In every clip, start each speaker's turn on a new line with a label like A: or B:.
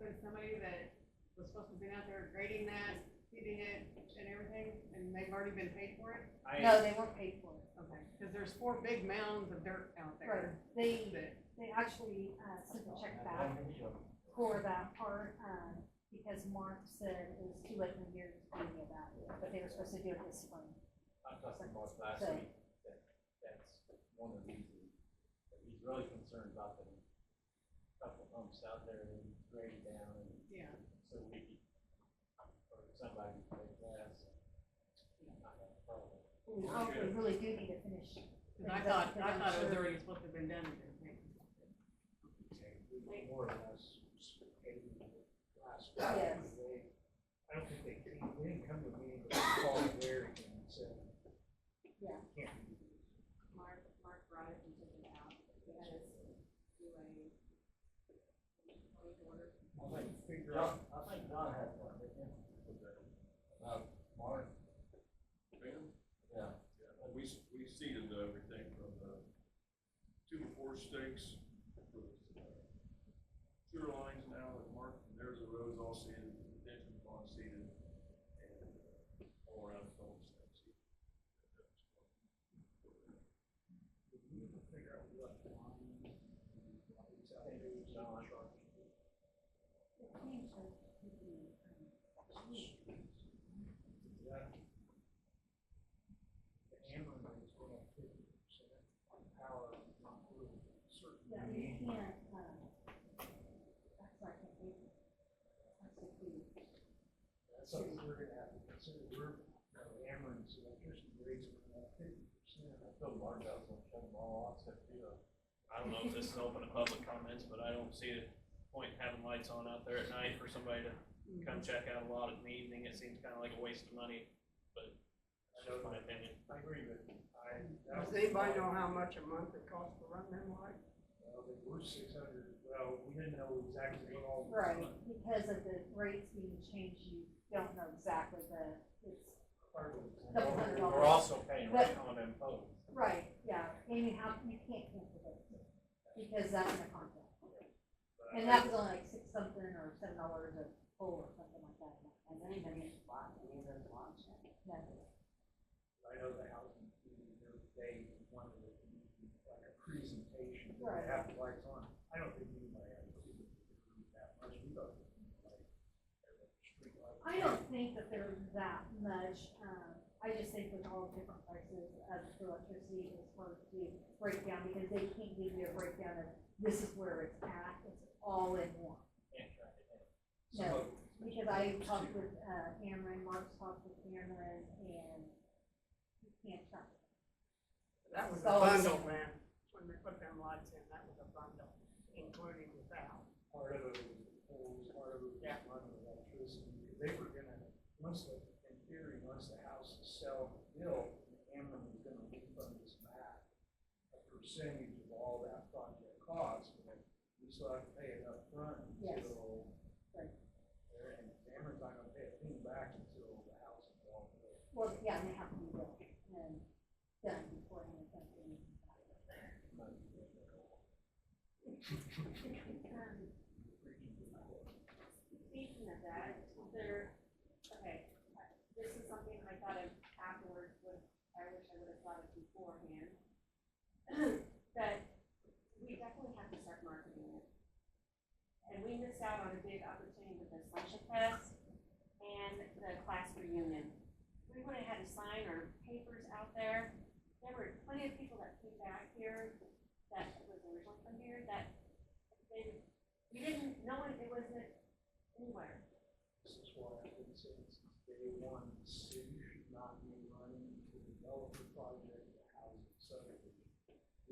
A: was somebody that was supposed to have been out there grading that, seeding it and everything, and they've already been paid for it?
B: No,
C: I,
B: they weren't paid for it.
A: Okay, because there's four big mounds of dirt out
B: Right,
A: there.
B: they,
A: that-
B: they actually, uh, sent a check back for that part, um, because Mark said it was too late in the year to do any of that, but they were supposed to do it this spring.
C: I talked to Mark last
B: So-
C: week, that, that's one of the reasons, that he's really concerned about the couple humps out there and grading down and
A: Yeah,
C: so we, could- or somebody could play glass. and not have a problem.
B: We probably really do need to finish.
A: because I thought, I thought it was already supposed to have been done. and everything.
D: More or less, paid in the last. five
B: Yes.
D: days. I don't think they, came- they didn't come to a meeting, but they called Larry and said.
B: Yeah.
D: Can't do this.
A: Mark, Mark brought it and took it out, because do a work order.
D: I'll like figure
C: John,
D: out.
C: I think John had one, didn't he? Uh,
E: About Mark,
F: Yeah,
E: yeah,
F: we, we seeded everything from the two to four stakes for the uh, sewer lines now that Mark, there's the roads all seeded, detention pond seeded, and uh, all around the phone stakes.
D: Did we ever figure out what line? lights out there was on truck? Yeah. The hammer is going up fifty percent, power is not really certain.
B: Yeah, we can't, um, that's why I can't do it. That's what we-
D: That's something we're gonna have to consider, we're, our Ameren's electricity rates are about fifty percent.
E: I feel Mark out on shut them all off, except you,
C: I don't know if this is open to public comments, but I don't see a point in having lights on out there at night for somebody to come check out a lot in the evening. It seems kind of like a waste of money, but that's my opinion.
D: I agree with you, I. that
G: Does
D: was-
G: anybody know how much a month it costs to run them lights?
D: Well, they were six hundred, well, we didn't know exactly what all.
B: Right, because of the rates being changed, you don't know exactly the, it's,
D: Part of
B: Couple hundred
D: it.
B: dollars.
C: We're also paying right on them poles.
B: right, yeah, Amy, how, you can't cancel those, because that's in the contract.
D: But I-
B: And that was only like six something or seven dollars a pole or something like that.
H: Has anybody bought any of those lots yet?
B: No.
D: I know the housing, committee the other day wanted to do like a presentation, they
B: Right.
D: have the lights on. I don't think anybody had to do that much, we thought. it was like, every street light.
B: I don't think that there's that much, um, I just think with all the different prices of electricity, it's hard to break down, because they can't give you a breakdown of this is where it's at, it's all in one.
C: Can't track it down.
B: No, because I talked with, uh, Cameron, Mark's talked with Cameron, and you can't track it.
G: That was a
B: So-
G: bundle, man, when we put them lights in, that was a bundle, including without.
D: Part of it was the poles, part of it was
G: Yeah.
D: running electricity, because they were gonna, once the, in theory, once the house is sell, built, Ameren was gonna refund us back a percentage of all that project cost, but we still have to pay it upfront
B: Yes.
D: until.
B: Right.
D: there- And Ameren's not gonna pay a thing back until the house is all built.
B: Well, yeah, they have to be built and done before anything.
A: Um, Speaking of that, there, okay, this is something I thought of afterwards, but I wish I would have thought of beforehand. That we definitely have to start marketing it. And we missed out on a big opportunity with the Slasher Fest and the class reunion. We would have had a sign or papers out there. There were plenty of people that came back here that was originally from here that they we didn't, no one, it wasn't anywhere.
D: This is why I've been saying since day one, the city should not be running to develop a project for housing subdivision.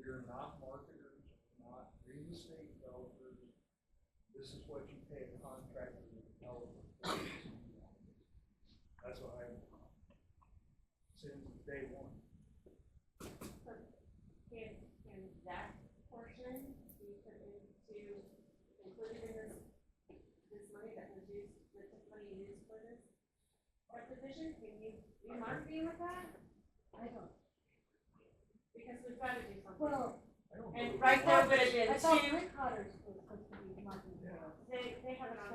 D: We are not marketers, we're not real estate developers. This is what you pay a contractor to develop. That's what I want. Since day one.
A: Can, can that portion be put into, included in this, this money that was used, that the money used for this? Subdivision, can you, you mark me with that?
B: I don't,
A: Because we've gotta do something.
B: well,
D: I don't
A: And
D: know.
A: right
B: Well,
A: there would have been
B: I thought
A: two,
B: Rick Carter's was supposed to be marketing.
D: Yeah.
A: they, they have uh, it on